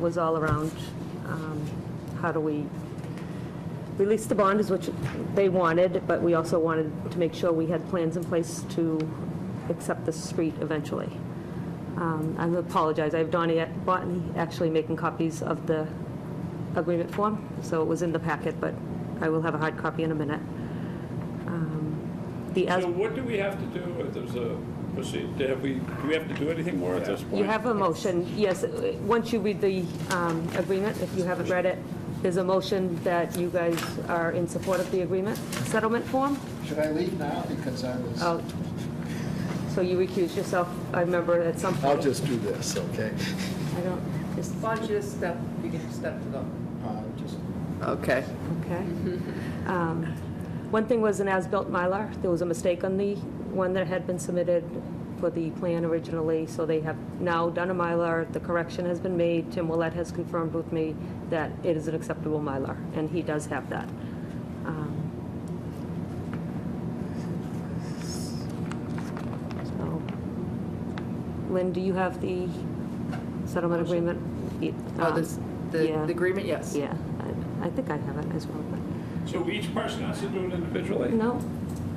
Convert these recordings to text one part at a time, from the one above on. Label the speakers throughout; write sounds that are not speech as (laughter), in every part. Speaker 1: was all around, um, how do we release the bond is what they wanted, but we also wanted to make sure we had plans in place to accept the street eventually. Um, I apologize, I have Donnie at- Botany actually making copies of the agreement form, so it was in the packet, but I will have a hard copy in a minute. Um, The as,
Speaker 2: So what do we have to do if there's a, proceed- have we, do we have to do anything more at this point?
Speaker 1: you have a motion, yes, uh, once you read the um, agreement, if you haven't read it, there's a motion that you guys are in support of the agreement settlement form?
Speaker 3: Should I leave now because I was?
Speaker 1: Oh, so you recuse yourself, I remember at some point.
Speaker 3: I'll just do this, okay?
Speaker 1: I don't, just,
Speaker 4: Why don't you just step, you can just step to them.
Speaker 3: Uh, Just
Speaker 4: Okay.
Speaker 1: okay. Um, One thing was an as-built Mylar, there was a mistake on the one that had been submitted for the plan originally, so they have now done a Mylar, the correction has been made, Tim Willett has confirmed with me that it is an acceptable Mylar, and he does have that. Um, So, Lynn, do you have the settlement agreement? Yeah,
Speaker 4: Oh,
Speaker 1: um,
Speaker 4: this, the
Speaker 1: yeah.
Speaker 4: the agreement, yes.
Speaker 1: Yeah, I, I think I have it as well, but,
Speaker 2: So each person has to do it individually?
Speaker 1: no,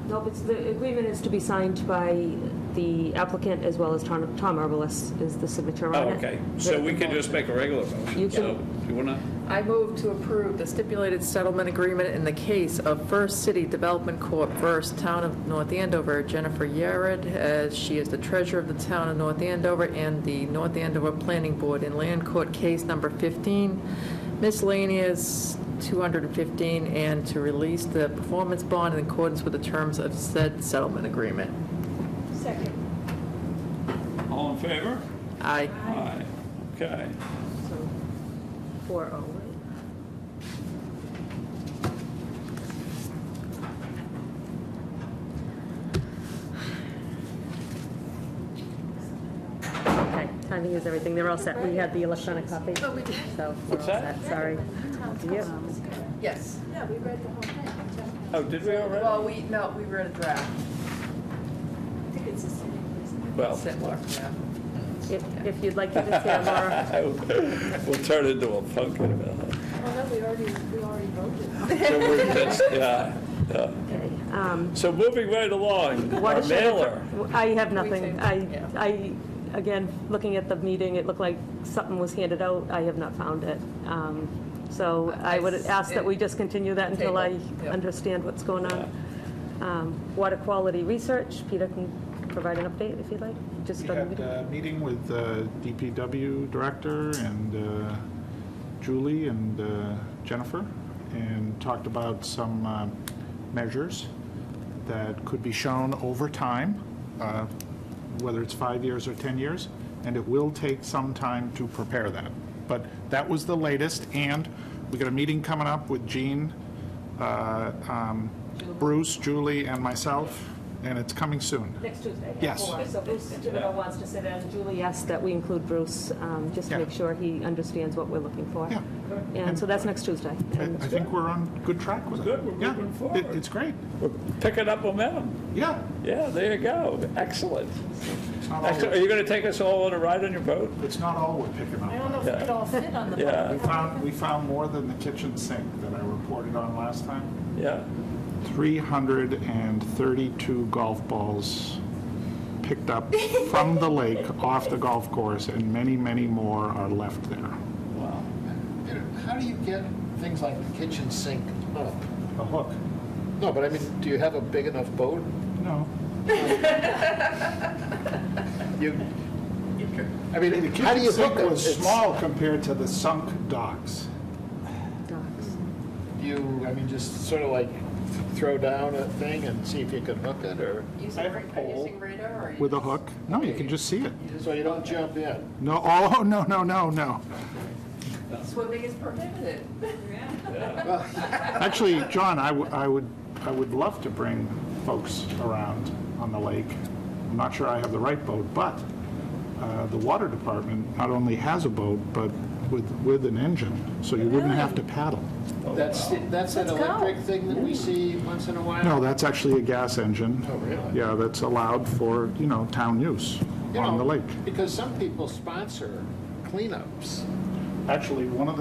Speaker 1: no, but the agreement is to be signed by the applicant as well as Tom, Tom Herbalis is the signature
Speaker 2: Oh,
Speaker 1: on it.
Speaker 2: okay, so we can just make a regular motion?
Speaker 1: You can-
Speaker 2: So You wanna,
Speaker 4: I move to approve the stipulated settlement agreement in the case of First City Development Corp. versus Town of North Andover, Jennifer Yared, as she is the treasurer of the Town of North Andover and the North Andover Planning Board in Land Court Case Number 15, miscellaneous 215, and to release the performance bond in accordance with the terms of said settlement agreement.
Speaker 2: all in favor?
Speaker 4: Aye.
Speaker 2: Aye. Okay,
Speaker 1: So, Four oh, right? Okay, timing is everything, they're all set, we had the electronic copy, so we're all
Speaker 2: What's that?
Speaker 1: set, sorry. Yep.
Speaker 4: Yes.
Speaker 5: Yeah, we read the whole thing.
Speaker 2: oh, did we already?
Speaker 4: we, no, we were in a draft.
Speaker 5: I think it's the same. Oh, isn't it?
Speaker 2: Well,
Speaker 4: Similar, yeah.
Speaker 1: If if you'd like to just hear Laura.
Speaker 2: (laughs) we'll turn it into a
Speaker 1: (laughs)
Speaker 2: pumpkin. uh,
Speaker 5: Oh, no, we already, we already voted.
Speaker 2: So we're just, yeah, yeah.
Speaker 1: Um,
Speaker 2: So moving right along, our
Speaker 1: watershed infra-
Speaker 2: mailer.
Speaker 1: I have
Speaker 4: We
Speaker 1: nothing.
Speaker 4: too,
Speaker 1: I,
Speaker 4: yeah.
Speaker 1: I, again, looking at the meeting, it looked like something was handed out. I have not found it. Um, So I would ask that we just continue that until I
Speaker 4: Table, yeah.
Speaker 1: understand what's going on. Um, Water quality research, Peter can provide an update if you'd like, just
Speaker 6: We
Speaker 1: on the
Speaker 6: had uh,
Speaker 1: meeting.
Speaker 6: a meeting with uh, the DPW director and uh, Julie and uh, Jennifer, and talked about some uh, measures that could be shown over time, uh, whether it's five years or 10 years, and it will take some time to prepare that. But that was the latest, and we got a meeting coming up with Gene, uh, um, Bruce, Julie, and myself, and it's coming soon.
Speaker 1: Next Tuesday. at
Speaker 6: Yes.
Speaker 1: four. So Bruce Thibodeau wants to sit in. Julie asked that we include Bruce, um, just to
Speaker 6: Yeah.
Speaker 1: make sure he understands what we're looking for.
Speaker 6: Yeah.
Speaker 1: And so that's next Tuesday.
Speaker 6: I
Speaker 1: And-
Speaker 6: I think we're on good track with it.
Speaker 2: Good, we're
Speaker 6: Yeah,
Speaker 2: moving
Speaker 6: it-
Speaker 2: forward.
Speaker 6: It's great.
Speaker 2: We're picking up momentum.
Speaker 6: Yeah.
Speaker 2: Yeah, there you go, excellent.
Speaker 6: It's not all,
Speaker 2: Excellent. Are you gonna take us all on a ride on your
Speaker 1: (laughs)
Speaker 2: boat?
Speaker 6: it's not all we're picking
Speaker 5: I don't
Speaker 6: up.
Speaker 5: know if we could all fit on the.
Speaker 2: Yeah.
Speaker 6: We found, we found more than the kitchen sink that I reported on last time.
Speaker 2: Yeah,
Speaker 6: 332 golf balls picked up from the lake off the golf course, and many, many more are left there.
Speaker 2: wow.
Speaker 3: Peter, How do you get things like the kitchen sink up?
Speaker 6: A hook?
Speaker 3: No, but I mean, do you have a big enough boat?
Speaker 6: No.
Speaker 3: You, you can, I
Speaker 6: The
Speaker 3: mean, how do you
Speaker 6: kitchen
Speaker 3: hook
Speaker 6: sink
Speaker 3: it?
Speaker 6: was
Speaker 3: It's-
Speaker 6: small compared to the sunk docks.
Speaker 1: Docs.
Speaker 3: You, I mean, just sort of like throw down a thing and see if you can hook it, or,
Speaker 6: I have a pole with a hook. No, you can just see it.
Speaker 3: so you don't jump in.
Speaker 6: No, oh, (laughs) no, no, no, no.
Speaker 4: Swimming is prohibited.
Speaker 6: Actually, John, I would, I would, I would love to bring folks around on the lake. I'm not sure I have the right boat, but uh, the water department not only has a boat, but with, with an engine, so you wouldn't have to paddle.
Speaker 3: That's, the- that's an electric thing that we see once in a while?
Speaker 6: No, that's actually a gas engine.
Speaker 3: Oh, really?
Speaker 6: Yeah, that's allowed for, you know, town use
Speaker 3: You
Speaker 6: on
Speaker 3: know,
Speaker 6: the lake.
Speaker 3: Because some people sponsor cleanups.
Speaker 6: Actually, one of the